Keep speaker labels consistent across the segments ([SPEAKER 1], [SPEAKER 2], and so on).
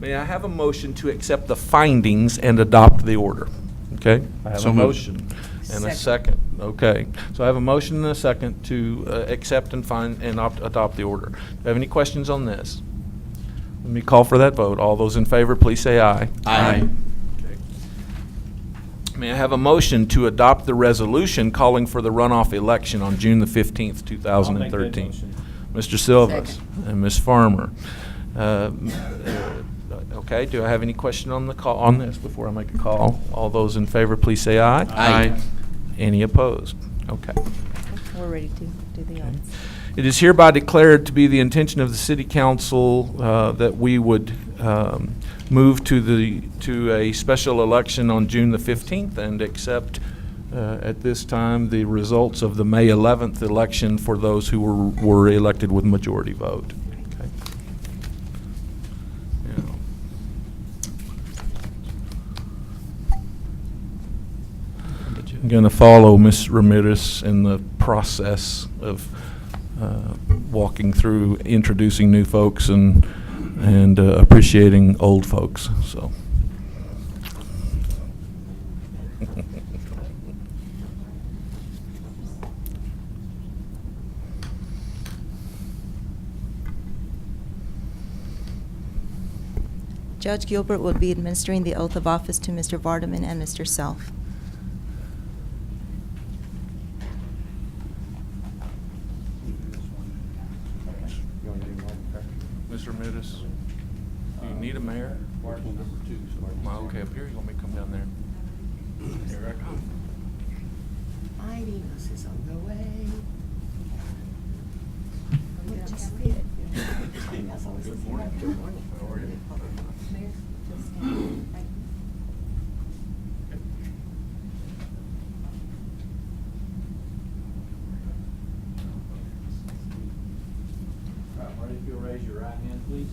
[SPEAKER 1] May I have a motion to accept the findings and adopt the order? Okay? I have
[SPEAKER 2] So
[SPEAKER 1] a
[SPEAKER 2] moved.
[SPEAKER 1] motion and a second.
[SPEAKER 3] Second.
[SPEAKER 1] Okay. So I have a motion and a second to uh, accept and find and opt- adopt the order. Do you have any questions on this? Let me call for that vote. All those in favor, please say aye.
[SPEAKER 2] Aye.
[SPEAKER 1] Okay. May I have a motion to adopt the resolution calling for the runoff election on June the 15th, 2013?
[SPEAKER 2] motion.
[SPEAKER 1] Mr. Silvas
[SPEAKER 3] Second.
[SPEAKER 1] and Ms. Farmer. Uh, uh, Okay, do I have any question on the call, on this before I make a call? All those in favor, please say aye.
[SPEAKER 2] Aye.
[SPEAKER 1] Any opposed? Okay.
[SPEAKER 3] We're ready to do the audits.
[SPEAKER 1] It is hereby declared to be the intention of the city council uh, that we would um, move to the, to a special election on June the 15th and accept uh, at this time the results of the May 11th election for those who were, were elected with majority vote. Okay. Now, I'm going to follow Ms. Ramirez in the process of uh, walking through, introducing new folks and, and uh, appreciating old folks, so.
[SPEAKER 3] Judge Gilbert will be administering the oath of office to Mr. Vardaman and Mr. Self.
[SPEAKER 1] Ms. Ramirez, do you need a mayor? My, okay, up here, you want me to come down there? Here I come.
[SPEAKER 4] Mightiness is on the way. We just did. That's always the same. Good morning.
[SPEAKER 1] How are you?
[SPEAKER 5] All right, Marty, if you'll raise your right hand, please.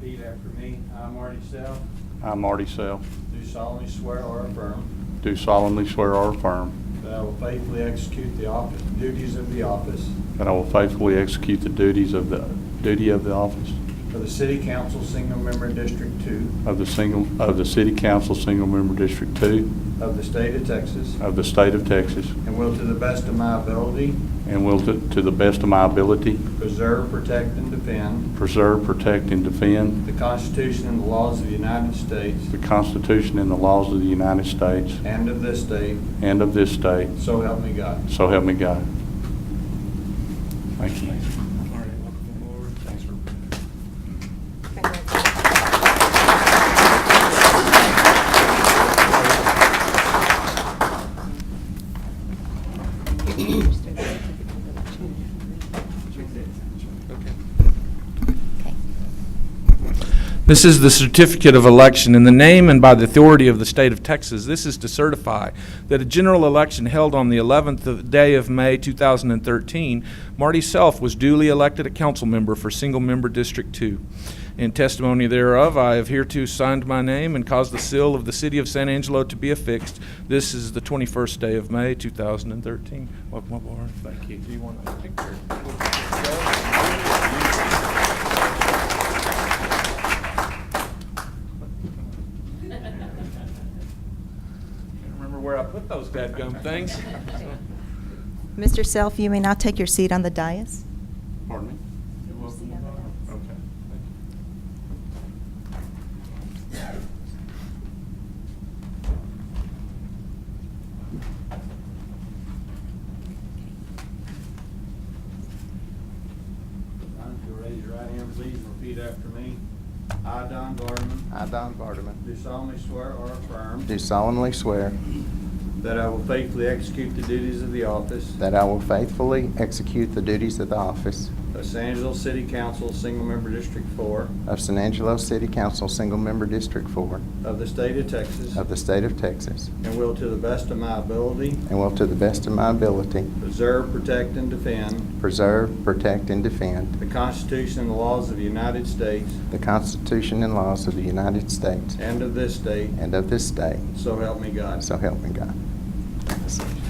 [SPEAKER 5] Repeat after me. I, Marty South,
[SPEAKER 6] I, Marty Self,
[SPEAKER 5] do solemnly swear or affirm
[SPEAKER 6] do solemnly swear or affirm
[SPEAKER 5] that I will faithfully execute the office, duties of the office
[SPEAKER 6] that I will faithfully execute the duties of the, duty of the office
[SPEAKER 5] for the City Council Single Member District Two
[SPEAKER 6] of the single, of the City Council Single Member District Two
[SPEAKER 5] of the state of Texas,
[SPEAKER 6] of the State of Texas,
[SPEAKER 5] and will to the best of my ability
[SPEAKER 6] and will to to the best of my ability
[SPEAKER 5] preserve, protect, and defend
[SPEAKER 6] preserve, protect, and defend
[SPEAKER 5] the Constitution and the laws of the United States
[SPEAKER 6] the Constitution and the laws of the United States
[SPEAKER 5] and of this state,
[SPEAKER 6] and of this state,
[SPEAKER 5] so help me God.
[SPEAKER 6] so help me God. Thank you.
[SPEAKER 1] This is the certificate of election. In the name and by the authority of the state of Texas, this is to certify that a general election held on the 11th of- day of May 2013, Marty Self was duly elected a council member for single member District 2. In testimony thereof, I have hereto signed my name and caused the seal of the city of San Angelo to be affixed. This is the 21st day of May 2013. Welcome aboard. Thank you. Do you want a picture? Can't remember where I put those dadgum things.
[SPEAKER 3] Mr. Self, you may now take your seat on the dais.
[SPEAKER 6] Pardon me?
[SPEAKER 1] Okay.
[SPEAKER 5] Don, if you'll raise your right hand, please, and repeat after me. I, Don Vardaman,
[SPEAKER 7] I, Don Vardaman,
[SPEAKER 5] do solemnly swear or affirm
[SPEAKER 7] do solemnly swear
[SPEAKER 5] that I will faithfully execute the duties of the office
[SPEAKER 7] that I will faithfully execute the duties of the office
[SPEAKER 5] of San Angelo City Council, Single Member District Four
[SPEAKER 7] of San Angelo City Council Single Member District 4
[SPEAKER 5] of the state of Texas,
[SPEAKER 7] of the state of Texas,
[SPEAKER 5] and will to the best of my ability
[SPEAKER 7] and will to the best of my ability
[SPEAKER 5] preserve, protect, and defend
[SPEAKER 7] preserve, protect, and defend
[SPEAKER 5] the Constitution and the laws of the United States
[SPEAKER 7] the Constitution and laws of the United States
[SPEAKER 5] and of this state,
[SPEAKER 7] and of this state,
[SPEAKER 5] so help me God.
[SPEAKER 7] so help me God.